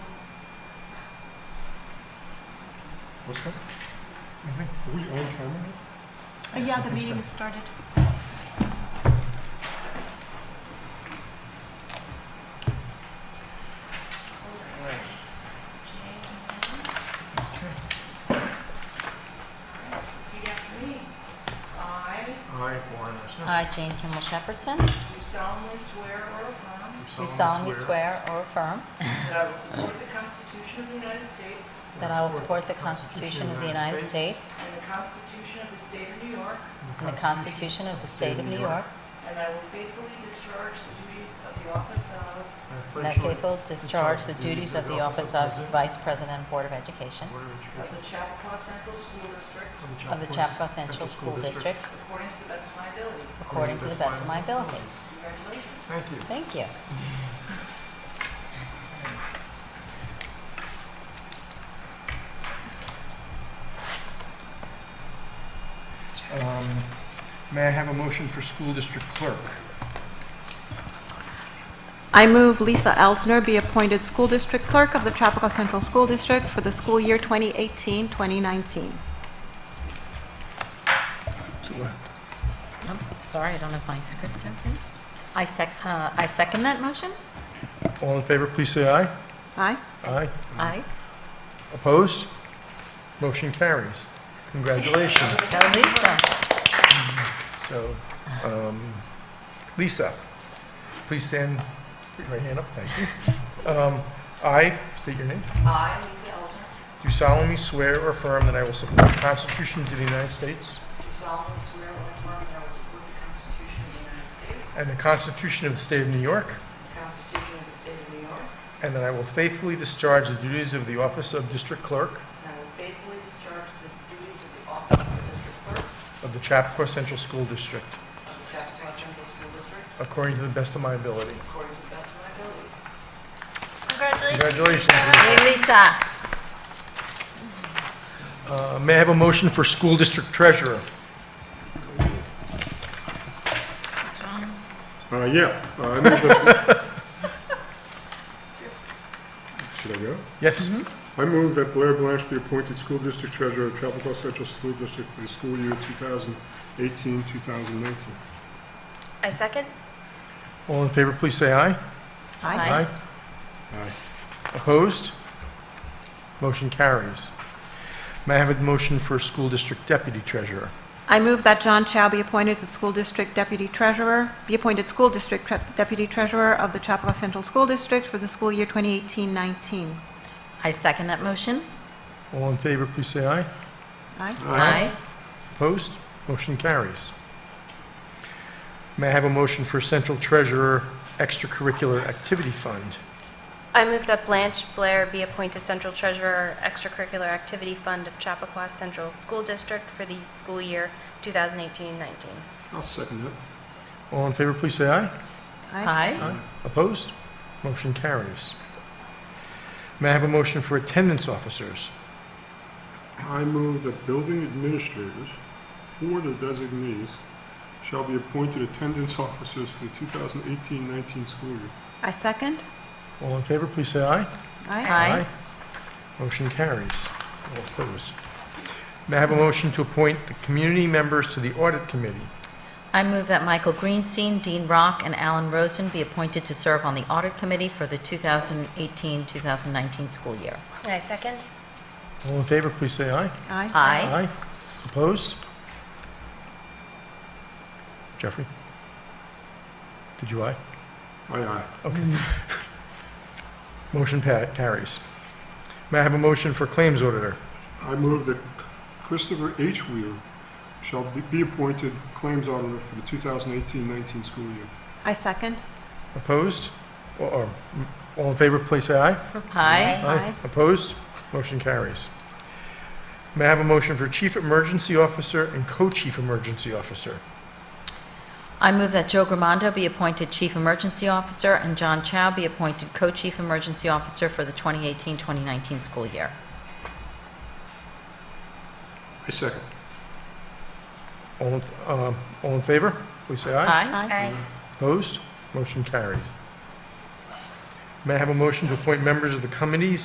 What's that? I think, are we on camera? Uh, Yeah, the I think meeting so. has started. Repeat after me. I I, Warren Rushnet. I, Jane Kimball Shepherdson, do solemnly swear or affirm do solemnly swear or affirm that I will support the Constitution of the United States that I will support the Constitution of the United States and the Constitution of the State of New York, and the Constitution of the State of New York, and I will faithfully discharge the duties of the office of and that faithful discharge the duties of the office of Vice President, Board of Education of the Chappaqua Central School District of the Chappaqua Central School District according to the best of my ability. according to the best of my ability. Congratulations. Thank you. Thank you. Um, May I have a motion for school district clerk? I move Lisa Elsner be appointed School District Clerk of the Chapakua Central School District for the school year 2018-2019. I'm s- sorry, I don't have my script open. I sec, uh, I second that motion. All in favor, please say aye. Aye? Aye. Aye. Opposed? Motion carries. Congratulations. Tell Lisa. So, um, Lisa, please stand, put your right hand up, thank you. Um, I, state your name, I, Lisa Elgin, do solemnly swear or affirm that I will support the Constitution of the United States do solemnly swear or affirm that I will support the Constitution of the United States and the Constitution of the State of New York, and the Constitution of the State of New York, and that I will faithfully discharge the duties of the office of District Clerk and I will faithfully discharge the duties of the office of the District Clerk of the Chappaqua Central School District of the Chappaqua Central School District according to the best of my ability. according to the best of my ability. Congratulations. Congratulations. Lisa. Hey, Lisa. Uh, May I have a motion for School District Treasurer? Uh, yeah, uh, I move that. Should I go? Yes? I move that Blair Blanche be appointed school district treasurer of Chapel Central School District for the school year 2018, 2019. I second. All in favor, please say aye. Aye. Aye. Opposed? Motion carries. May I have a motion for School District Deputy Treasurer? I move that John Chow be appointed the School District Deputy Treasurer, be appointed School District Tre- Deputy Treasurer of the Chapakua Central School District for the school year 2018-19. I second that motion. All in favor, please say aye. Aye? Aye. Opposed? Motion carries. May I have a motion for Central Treasurer Extracurricular Activity Fund? I move that Blanche Blair be appointed Central Treasurer, Extracurricular Activity Fund of Chappaqua Central School District for the school year 2018-19. I'll second that. All in favor, please say aye. Aye. Opposed? Motion carries. May I have a motion for Attendance Officers? I move that building administrators or their designees shall be appointed attendance officers for the 2018-19 school year. I second? All in favor, please say aye. Aye? Aye. Motion carries. All opposed. May I have a motion to appoint the community members to the Audit Committee? I move that Michael Greenstein, Dean Rock, and Alan Rosen be appointed to serve on the Audit Committee for the 2018-2019 school year. I second. All in favor, please say aye. Aye? Aye. Opposed? Jeffrey? Did you aye? Aye, aye. Okay. Mm-hmm. Motion pa- carries. May I have a motion for Claims Auditor? I move that Christopher H. Weir shall be- be appointed Claims Auditor for the 2018-19 school year. I second? Opposed? Or- Or, all in favor, please say aye. Aye. Aye. Opposed? Motion carries. May I have a motion for Chief Emergency Officer and Co-Chief Emergency Officer? I move that Joe Gramando be appointed Chief Emergency Officer and John Chow be appointed Co-Chief Emergency Officer for the 2018-2019 school year. I second. All, in- um, all in favor, please say aye. Aye. Mm-hmm. Aye. Opposed? Motion carries. May I have a motion to appoint members of the committees